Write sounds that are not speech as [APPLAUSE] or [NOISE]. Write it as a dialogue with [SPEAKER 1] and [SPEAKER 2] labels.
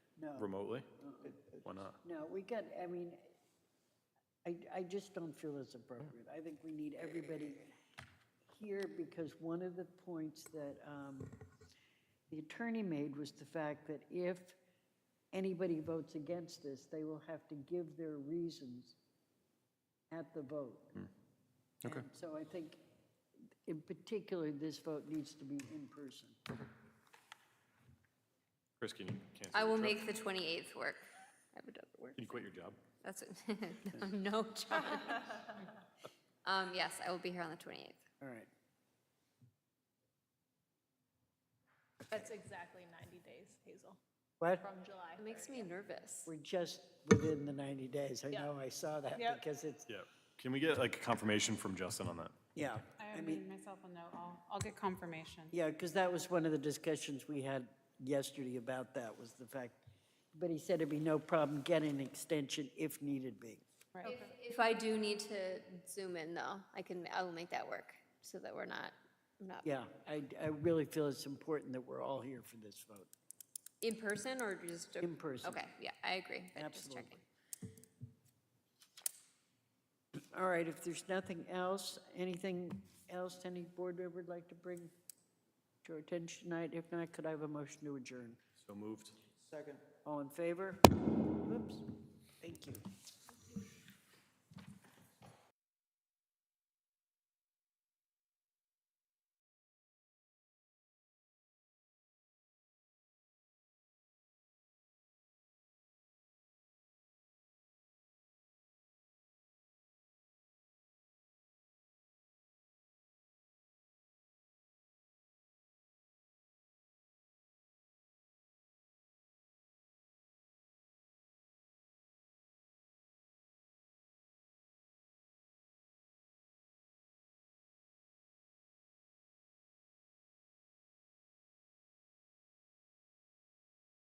[SPEAKER 1] No.
[SPEAKER 2] remotely? Why not?
[SPEAKER 1] No, we got, I mean, I, I just don't feel it's appropriate. I think we need everybody here because one of the points that um, the attorney made was the fact that if anybody votes against this, they will have to give their reasons at the vote.
[SPEAKER 2] Okay.
[SPEAKER 1] And So I think, in particular, this vote needs to be in person.
[SPEAKER 2] Chris, can you cancel?
[SPEAKER 3] I
[SPEAKER 2] your
[SPEAKER 3] will
[SPEAKER 2] trip?
[SPEAKER 3] make the 28th work. I have another work.
[SPEAKER 2] Can you quit your job?
[SPEAKER 3] That's, it. [LAUGHS] no,
[SPEAKER 1] [LAUGHS]
[SPEAKER 3] John. Um, yes, I will be here on the 28th.
[SPEAKER 1] All right.
[SPEAKER 4] That's exactly 90 days, Hazel,
[SPEAKER 1] What?
[SPEAKER 4] from July.
[SPEAKER 3] It makes me nervous.
[SPEAKER 1] We're just within the 90 days. I
[SPEAKER 4] Yeah.
[SPEAKER 1] know, I saw that
[SPEAKER 4] Yep.
[SPEAKER 1] because it's,
[SPEAKER 2] Yeah. Can we get like confirmation from Justin on that?
[SPEAKER 1] yeah.
[SPEAKER 5] I made myself a note. I'll, I'll get confirmation.
[SPEAKER 1] Yeah, because that was one of the discussions we had yesterday about that, was the fact, but he said it'd be no problem getting an extension if needed be.
[SPEAKER 5] Right.
[SPEAKER 3] If if I do need to zoom in though, I can, I will make that work so that we're not, I'm not
[SPEAKER 1] Yeah, I, I really feel it's important that we're all here for this vote.
[SPEAKER 3] in person or just. a-
[SPEAKER 1] In person.
[SPEAKER 3] Okay, yeah, I agree. but just
[SPEAKER 1] Absolutely.
[SPEAKER 3] checking.
[SPEAKER 1] All right, if there's nothing else, anything else any board member would like to bring to our attention tonight? If not, could I have a motion to adjourn?
[SPEAKER 2] So moved.
[SPEAKER 1] All in favor? Whoops, thank you.